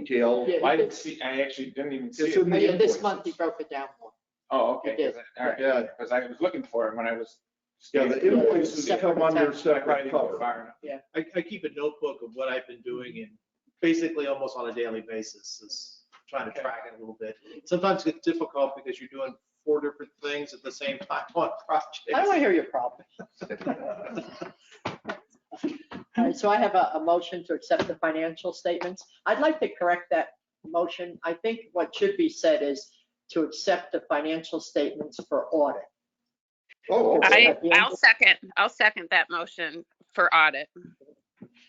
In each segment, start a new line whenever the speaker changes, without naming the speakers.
detail.
Yeah,
I
he
didn't
did-
see, I actually didn't even see
It's
it.
in
Oh,
the
yeah, This
invoice.
month he broke it down more.
Oh, okay,
It is.
Yeah.
because I was looking for it when I was.
Yeah, the invoices come under
I probably
separate
didn't go
cover.
far enough.
I, I keep a notebook of what I've been doing and basically almost on a daily basis is trying to track it a little bit. Sometimes it's difficult because you're doing four different things at the same time on
I don't want to
projects.
hear your problem. All right, so I have a, a motion to accept the financial statements. I'd like to correct that motion. I think what should be said is to accept the financial statements for audit.
Oh, okay.
I, I'll second, I'll second that motion for audit.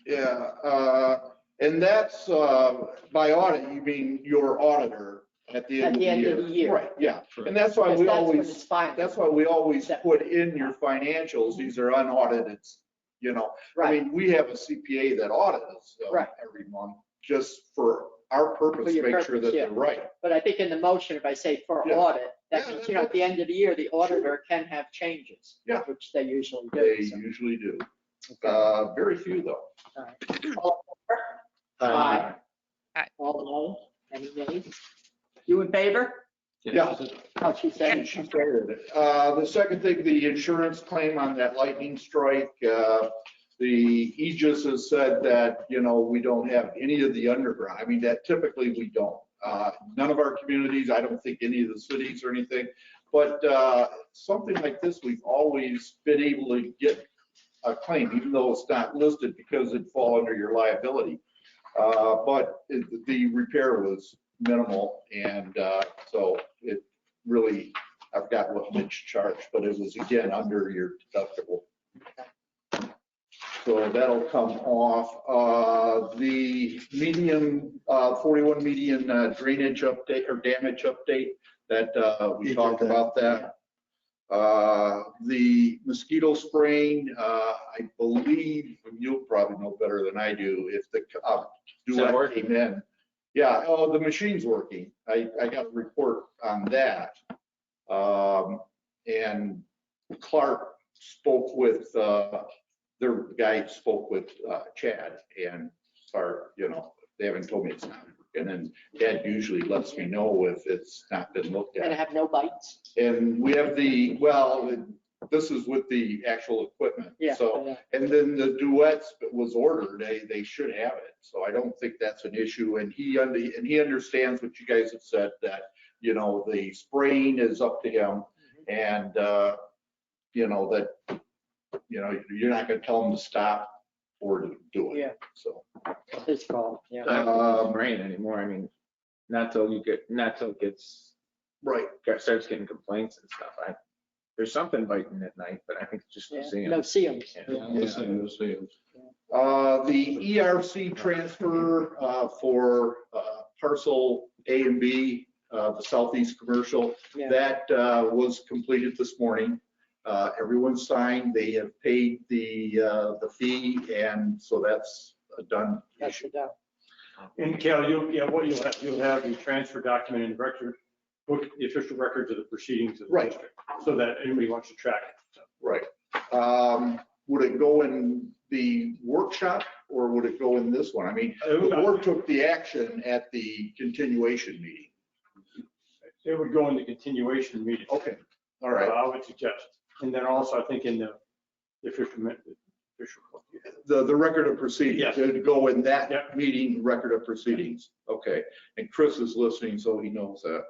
yeah, uh, and that's, uh, by audit, you mean your auditor at the end of the year.
At the end of the year.
Right, yeah, and that's why
Because
we
that's when it's
always,
filed.
that's why we always put in your financials, these are unaudited, you know. I
Right,
mean, we have a CPA that audits them
Right.
every month, just for our
For
purpose,
your
make sure
purpose,
that
yeah.
they're right.
but I think in the motion, if I say for
Yeah.
audit, that
Yeah,
means, you know, at the end of the year, the auditor can have changes.
Yeah.
Which they usually
They
do. so.
usually do. Uh, very few though.
All right. All in favor?
Uh,
Aye.
All no, any nays? You in favor?
Yeah.
Oh, she said.
She started it. Uh, The second thing, the insurance claim on that lightning strike, uh, the Aegis has said that, you know, we don't have any of the underground. I mean, that typically we don't. Uh, None of our communities, I don't think any of the cities or anything. But uh, something like this, we've always been able to get a claim, even though it's not listed because it'd fall under your liability. Uh, But it- the repair was minimal and uh, so it really I forgot what Mitch charged, but it was again under your deductible. So that'll come off. Uh, The median, uh, 41 median uh, drainage update or damage update that uh, we
You
talked
did that.
about that. Uh, The mosquito spraying, uh, I believe, you'll probably know better than I do if the, uh,
Is that
Duet
working?
came in. Yeah, oh, the machine's working. I, I got a report on that. Um, and Clark spoke with, uh, their guy spoke with, uh, Chad and Clark, you know, they haven't told me it's not. And then Chad usually lets me know if it's not been looked
And
at.
have no bites.
And we have the, well, this is with the actual equipment.
Yeah.
So and then the duets was ordered, they, they should have it, so I don't think that's an issue, and he, under- and he understands what you guys have said, that, you know, the spraying is up to him,
Mm-hmm.
and, uh, you know, that, you know, you're not gonna tell him to stop or to do it,
Oh, Yeah,
so.
it's his call, yeah.
I don't think it's rain anymore, I mean, not till you get, not till it gets,
Right.
starts getting complaints and stuff. I, there's something biting at night, but I think it's just
Yeah.
seeing.
No seams.
Uh, the ERC transfer, uh, for, uh, parcel A and B, uh, the southeast commercial,
Yeah.
That uh, was completed this morning. Uh, Everyone signed, they have paid the, uh, the fee, and so that's a done
That's
issue.
the doubt.
And Cal, you'll, yeah, what you'll have, you'll have the transfer document in the record, book, the official records of the proceedings of the
Right.
district, so that anybody wants to track it.
Right. Um, Would it go in the workshop, or would it go in this one? I mean, the
It would-
board took the action at the continuation meeting.
It would go in the continuation meeting.
Okay, all right.
I would suggest, and then also, I think in the the official, min- official.
The, the record of proceedings,
Yes.
it would go in that
Yep.
meeting, record of proceedings. Okay. And Chris is listening, so he knows that.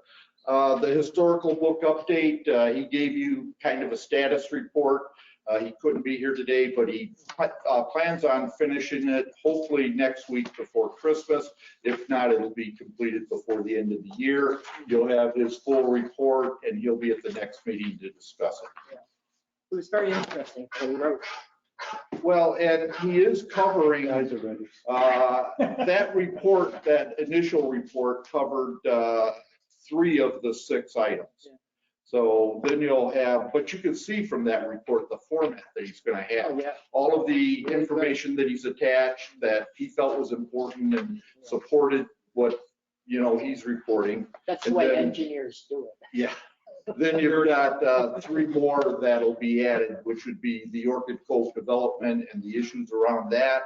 Uh, The historical book update, uh, he gave you kind of a status report. Uh, He couldn't be here today, but he uh, plans on finishing it hopefully next week before Christmas. If not, it'll be completed before the end of the year. You'll have his full report and he'll be at the next meeting to discuss it.
It was very interesting. what he wrote.
Well, and he is covering
are ready.
Uh, That report, that initial report covered uh, three of the six items.
Yeah.
So then you'll have, but you can see from that report, the format that he's going to
Oh,
have.
yeah.
All of the information that he's attached that he felt was important and supported what, you know, he's reporting.
That's the
And
way
then-
engineers do it.
Yeah. Then you've got uh, three more that'll be added, which would be the Orchid Cove development and the issues around that,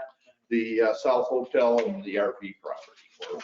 the uh, South Hotel and the RV property or